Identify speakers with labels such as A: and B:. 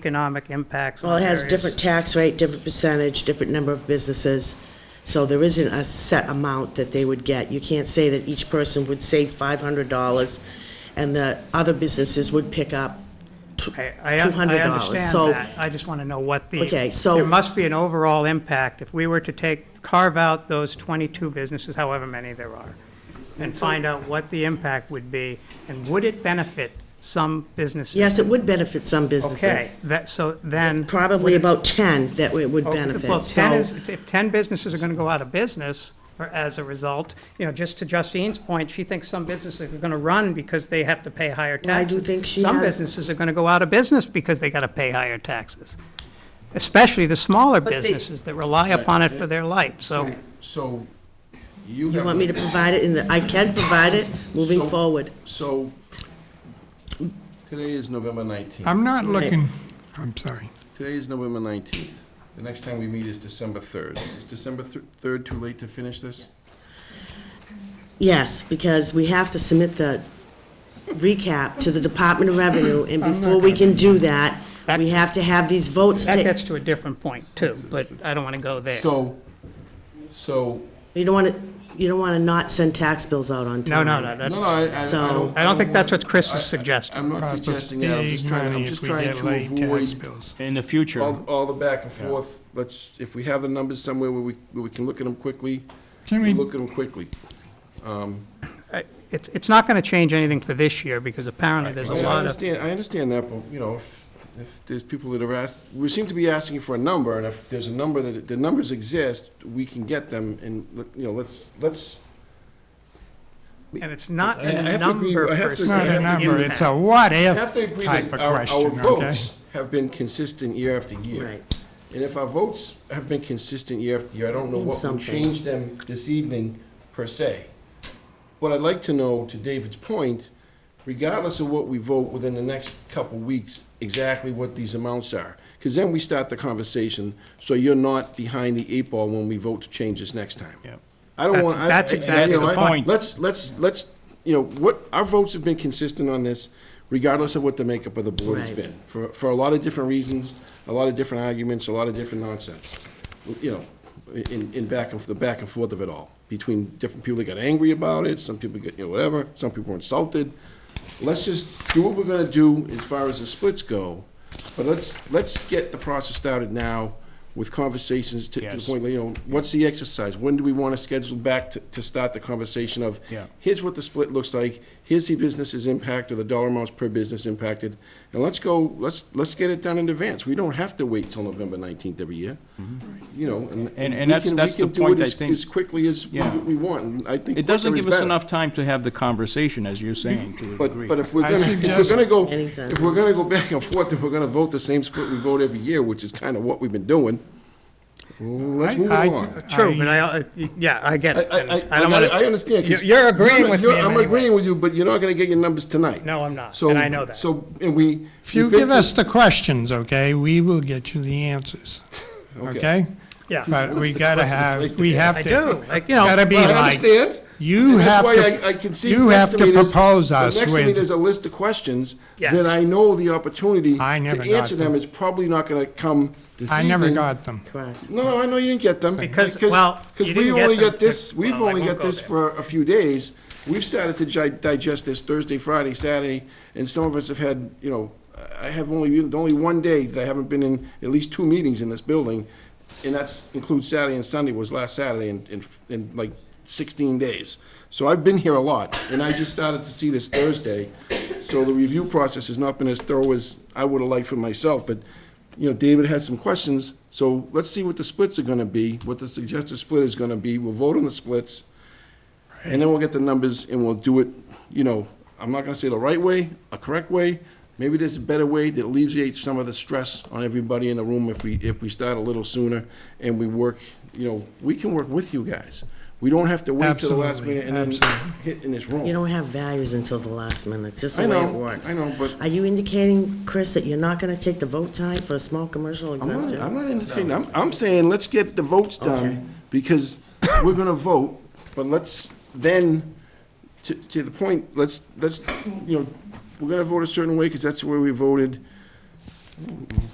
A: economic impacts.
B: Well,
A: on
B: it has
A: various-
B: different tax rate, different percentage, different number of businesses, so there isn't a set amount that they would get. You can't say that each person would save $500 and the other businesses would pick up tw-
A: I, I un- I
B: $200.
A: understand
B: So-
A: that. I just want to know what the.
B: Okay, so-
A: There must be an overall impact. If we were to take, carve out those 22 businesses, however many there are, and find out what the impact would be, and would it benefit some businesses?
B: Yes, it would benefit some businesses.
A: Okay, that, so then.
B: Probably about 10 that it would
A: Okay,
B: benefit.
A: Well, 10
B: So-
A: is, if 10 businesses are going to go out of business or as a result, you know, just to Justine's point, she thinks some businesses are going to run because they have to pay higher
B: Well, I
A: taxes.
B: do think she
A: Some
B: has-
A: businesses are going to go out of business because they got to pay higher taxes, especially the smaller
C: But they-
A: businesses that rely upon it for their life, so.
D: So you have.
B: You want me to provide it in the, I can provide it moving
D: So-
B: forward.
D: So today is November 19th.
E: I'm not
B: Right.
E: looking, I'm sorry.
D: Today is November 19th. The next time we meet is December 3rd. Is December thr- 3rd too late to finish this?
B: Yes, because we have to submit the recap to the Department of Revenue, and before we can do that, we have to have these votes
A: That
B: taken.
A: gets to a different point, too, but I don't want to go there.
D: So, so,
B: You don't want to, you don't want to not send tax bills out on
A: No,
B: time.
A: no, no,
D: no, no,
A: that-
D: I, I I
B: So-
D: don't.
A: I don't think that's what Chris
D: I- I-
A: is suggesting.
D: I'm not
E: Cost us
D: suggesting that, I'm
E: big
D: just trying, I'm
E: money if
D: just
E: we
D: trying
E: get
D: to
E: late tax
D: avoid
E: bills.
F: In the future.
D: all, all the back and forth. Let's, if we have the numbers somewhere where we, where we can look at them quickly,
E: Can
D: we
E: we,
D: look at them quickly.
A: I- Uh, It's, it's not going to change anything for this year, because apparently there's a
D: I mean, I
A: lot of
D: understand, I understand that, but, you know, if, if there's people that are asked, we seem to be asking for a number, and if there's a number that, the numbers exist, we can get them, and, let- you know, let's, let's,
A: And it's not
D: I- I
A: a
D: have to agree-
A: number
D: I have
A: per se.
D: to agree-
E: it's not
D: I
E: a
D: have
E: number,
A: impact.
E: it's a what-if
D: I have to agree
E: type
D: that
E: of
D: our, our
E: question, okay?
D: votes have been consistent year after year.
B: Right.
D: And if our votes have been consistent year after year, I don't know
B: Means
D: what would
B: something.
D: change them this evening, per se. What I'd like to know, to David's point, regardless of what we vote within the next couple weeks, exactly what these amounts are. Because then we start the conversation, so you're not behind the eight ball when we vote to change this next time.
F: Yep.
D: I don't
A: That's-
D: want. I-
A: that's
D: I- I-
A: exactly
D: you know,
F: the
D: I-
F: point.
D: Let's, let's, let's, you know, what, our votes have been consistent on this, regardless of what the makeup of the board has
B: Right.
D: been. For, for a lot of different reasons, a lot of different arguments, a lot of different nonsense. You know, in, in back and, the back and forth of it all, between different people that got angry about it, some people get, you know, whatever, some people were insulted. Let's just do what we're gonna do as far as the splits go, but let's, let's get the process started now with conversations to, to the
F: Yes.
D: point, you know, what's the exercise? When do we want to schedule back to, to start the conversation of,
F: Yeah.
D: here's what the split looks like, here's the business's impact or the dollar amounts per business impacted, and let's go, let's, let's get it done in advance. We don't have to wait till November nineteenth every year, you know, and.
F: Mm-hmm. And- and
D: we
F: that's-
D: can- we
F: that's the
D: can do it
F: point I
D: as-
F: think-
D: As quickly as we
F: Yeah.
D: we want, and I think.
F: It doesn't
D: quicker
F: give
D: is
F: us
D: better.
F: enough time to have the conversation, as you're saying, to a
D: But,
F: degree.
D: but if we're
E: I
D: gonna, if we're
E: suggest-
D: gonna go,
B: Anytime.
D: if we're gonna go back and forth, if we're gonna vote the same split we vote every year, which is kind of what we've been doing, let's
E: I-
D: move
E: I-
D: along.
A: True,
E: I-
A: but I, uh, yeah, I get
D: I,
A: it.
D: I,
A: and
D: I,
A: don't
D: I,
A: wanna-
D: I understand. 'cause
A: You- You're agreeing
D: you're-
A: with me
D: you're-
A: in
D: I'm
A: many
D: agreeing
A: ways.
D: with you, but you're not gonna get your numbers tonight.
A: No, I'm not,
D: So-
A: and I know that.
D: So, and we.
E: If you
D: we've been
E: give us the questions, okay, we will get you the answers, okay?
A: Yeah,
E: But we gotta have, we have
A: I
E: to,
A: do, like, you know.
E: gotta be
D: through- I
E: like,
D: understand.
E: you
D: And That's
E: have
D: why I, I
E: to,
D: can see.
E: you
D: next
E: have
D: me
E: to
D: there's-
E: propose
D: the
E: us
D: Next to me, there's
E: with,
D: a list of questions
A: Yes.
D: that I know the opportunity.
E: I never
D: To
E: got
D: answer them
E: them.
D: is probably not gonna come this
E: I never
D: evening.
E: got them.
B: Correct.
D: No, no, I know you didn't get them.
A: Because- well, you
D: Because we
A: didn't get
D: only
A: them
D: got this,
A: because-
D: we've
A: well, I
D: only
A: won't
D: got
A: go
D: this
A: there.
D: for a few days. We've started to gi- digest this Thursday, Friday, Saturday, and some of us have had, you know, I have only, been- only one day that I haven't been in at least two meetings in this building, and that's includes Saturday and Sunday was last Saturday in, in, in like sixteen days. So I've been here a lot, and I just started to see this Thursday. So the review process has not been as thorough as I would have liked for myself, but you know, David had some questions, so let's see what the splits are gonna be, what the suggested split is gonna be, we'll vote on the splits, and then we'll get the numbers and we'll do it, you know, I'm not gonna say the right way, a correct way, maybe there's a better way that alleviates some of the stress on everybody in the room if we, if we start a little sooner and we work, you know, we can work with you guys. We don't have to wait till the last
E: Absolutely,
D: minute and then
E: absolutely.
D: hit in this
B: You
D: room.
B: don't have values until the last minute, it's just
D: I
B: the way it
D: know,
B: works.
D: I know, but-
B: Are you indicating, Chris, that you're not going to take the vote time for a small commercial
D: I'm not, I'm
B: exemption?
D: not entertaining, I'm, I'm saying let's get the votes
B: Okay.
D: done, because we're gonna vote, but let's then, to, to the point, let's, let's, you know, we're gonna vote a certain way, because that's the way we voted.